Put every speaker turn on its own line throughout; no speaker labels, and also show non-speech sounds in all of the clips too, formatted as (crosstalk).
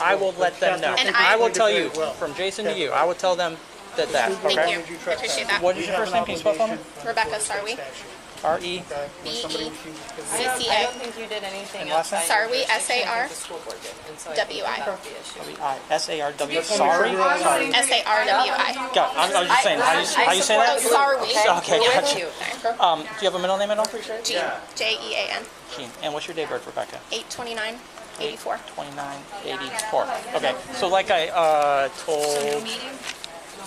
I will let them know.
And
I will
I-
tell you,
Well.
from Jason to you, I will tell them that that,
Thank
okay?
you.
I appreciate that.
What is your first name? Can you spell it for me? E
Rebecca Sarwi.
R-E,
E
I don't, I don't
CCA.
think you did anything
last
outside.
name?
your
Sarwi,
jurisdiction. I think
S-A-R,
the school board did, and so I think
W-I.
that's the issue.
I, S-A-R-W, sorry? Sorry.
S A R W I.
Got it. I I was just saying, how you, how you say
Oh,
that?
Sarwi.
Okay,
We're with
gotcha.
you.
Um, do you have a middle name at all?
G J E A N.
Keen. And what's your date of birth, Rebecca?
829 84.
2984. Okay, so like I uh, told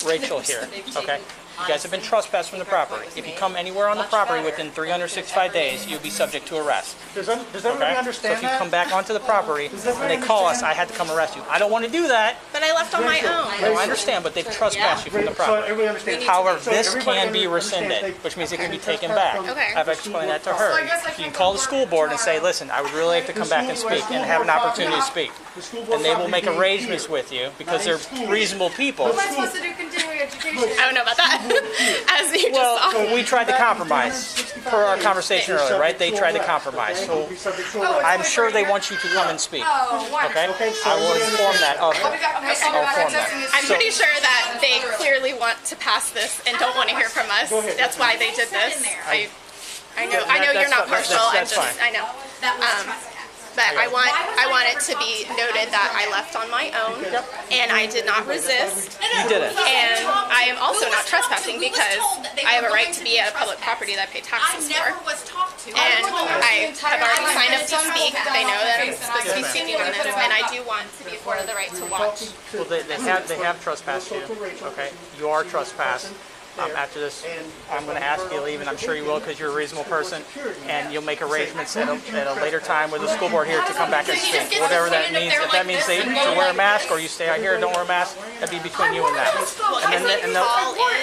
Rachel here, okay? You guys have been trespassed from the property. If you come anywhere on the property within 365 days, you'll be subject to arrest,
Does un- does
okay?
everybody
So if
understand
you come
that?
back onto the property and they call us, I had to come arrest you. I don't want to do that.
But I left on my own.
No, I understand, but they've trespassed you from the
So
property.
everybody understands.
However,
So
this
everybody
can be
understands
rescinded,
they-
which means it can be
they
taken
trespass
back.
from-
Okay.
I've explained that to her. You can call the school board and say, listen, I would really like to come back and speak and have an opportunity to speak.
The school board
And they will
property
make
being
arrangements
here.
with you because they're reasonable people.
Am I supposed
to do continuing education?
I don't know
(laughs)
about that. (laughs) As you just saw.
Well, we tried to compromise per our conversation earlier, right? They tried to compromise. So I'm sure they want you to come and speak,
Oh,
okay? I will inform that of them. I'll inform them.
I'm pretty sure that they clearly want to pass this and don't want to hear from us.
ahead.
That's why they did this. I, I know, I know
That-
you're not
that's
partial.
fine.
I'm
That's-
just,
that's fine.
I know. Um, But I want, I want it to be noted that I left on my own and I did not resist.
You did it.
And I am also not trespassing because I have a right to be at a public property that I pay taxes for.
was talked to.
And I have already signed up to speak. They know that I'm supposed to be speaking on this, and I do want to be afforded the right to watch.
Well, they, they have, they have trespassed you, okay? You are trespassed. Um, after this, I'm gonna ask you to leave, and I'm sure you will, because you're a reasonable person, and you'll make arrangements at a, at a later time with the school board here to come back and speak, whatever that means. If that means they, to wear a mask, or you stay out here, don't wear a mask, that'd be between you and that.
And
then the- and the-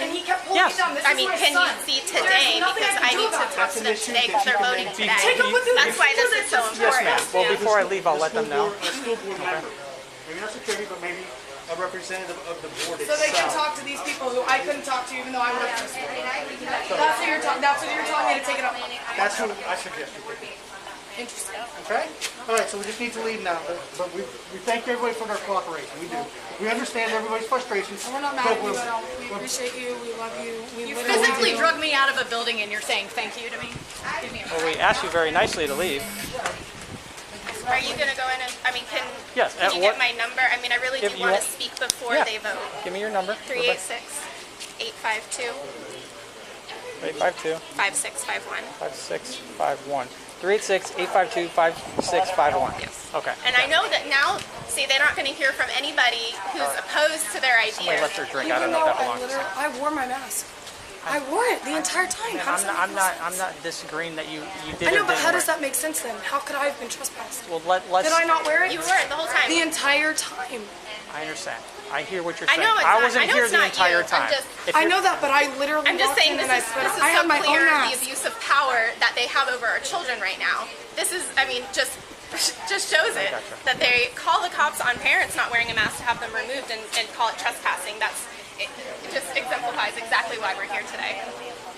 And he kept holding
Yes.
me down. This
I
is
mean,
my
can you
son.
see today, because I need to talk to them today, because they're voting
Take
today.
up with him.
That's why this is so
Yes, ma'am.
important.
Well, before I leave, I'll let them know.
A school board member, maybe not security, but maybe a representative of the board
So they can
itself.
talk to these people who I couldn't talk to, even though I worked for school. That's what you're talking. That's what you're telling me to take it up.
That's what I suggest you do.
Interesting.
Okay? All right, so we just need to leave now, but- but we, we thank everybody for their cooperation, we do. We understand everybody's frustrations.
We're not mad at you at all. We appreciate you. We love you. We
You
literally
physically
do.
drug me out of a building and you're saying thank you to me? Give me a
Well, we asked you very nicely to leave.
Are you gonna go in and, I mean, can,
Yes,
can
at
you
what-
get my number? I mean, I really do
If you
wanna
want-
speak before
Yeah.
they vote.
Give me your number.
Three eight six, eight five two,
Eight five two,
five six five one.
five six five one. Three eight six, eight five two, five six five one.
Yes.
Okay.
And I know that now, see, they're not gonna hear from anybody who's opposed to their
Somebody
ideas.
left their drink, I
Even
don't know
though
if that
I
belongs.
literally, I wore my mask. I wore it the entire time. How does
I'm not,
that
I'm
make
not,
sense?
I'm not disagreeing that you, you did
I
or
know, but
didn't
how does
wear
that make sense then? How could I have been trespassed?
it. Well, let, let's,
Did I not wear it?
You were the whole time.
The entire time.
I understand. I hear what you're
I
saying.
know it's
I
not-
wasn't
I know
here
it's
the
not
entire
you. I'm
time.
just-
If
I
you're-
know that, but I literally
I'm just
walked
saying
in
this
and I
is,
put,
this is
I
so
had my
clear
own
the
mask.
abuse of power that they have over our children right now. This is, I mean, just just shows it that they call the cops on parents not wearing a mask to have them removed and, and call it trespassing. That's it, it just exemplifies exactly why we're here today.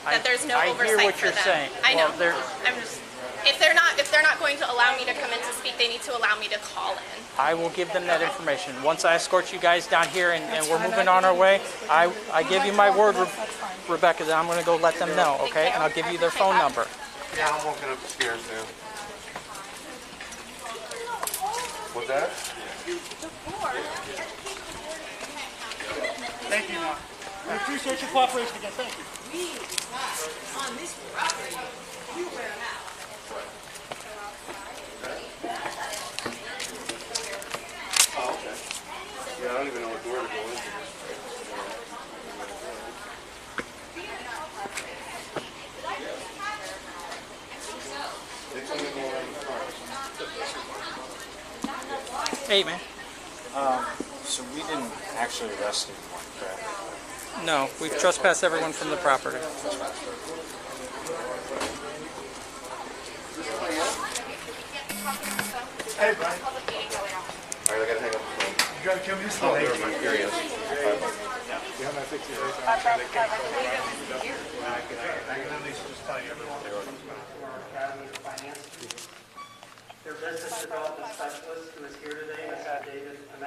I-
That there's no
I hear
oversight
what
for
you're
them.
saying.
I know.
Well, there-
I'm just if they're not if they're not going to allow me to come in to speak, they need to allow me to call in.
I will give them that information. Once I escort you guys down here and, and we're moving on our way, I, I give you my word, Re- Rebecca, that I'm gonna go let them know, okay? And I'll give you their phone number.
Yeah, I'm walking upstairs now. What's that?
Thank you, Mark. We appreciate your cooperation again, thank you.
Yeah, I don't even know what door to go in.
Hey, man.
So we didn't actually arrest anyone, correct?
No, we've trespassed everyone from the property.
Hey, Brian,
All right, I gotta hang up the phone.
you gotta come this way.
I'm curious.
I can at least just tell you everyone that comes back to our Academy of Finance. Their business development specialist who is here today, Ms. David